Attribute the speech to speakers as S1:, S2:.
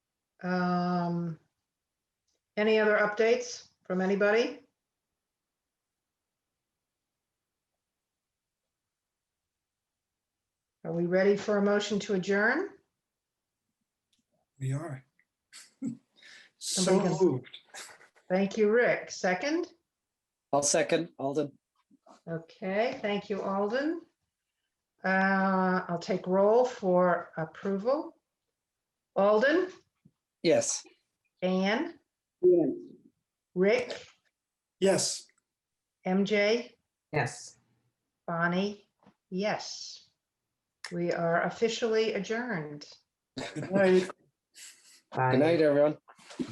S1: Um, Any other updates from anybody? Are we ready for a motion to adjourn?
S2: We are. So
S1: Somebody can-
S2: moved.
S1: Thank you, Rick. Second?
S3: I'll second Alden.
S1: Okay, thank you, Alden. Uh, I'll take roll for approval. Alden,
S3: Yes.
S1: Anne, Rick,
S2: Yes,
S1: MJ,
S4: Yes.
S1: Bonnie, yes. We are officially adjourned.
S2: good night.
S3: Good night, everyone.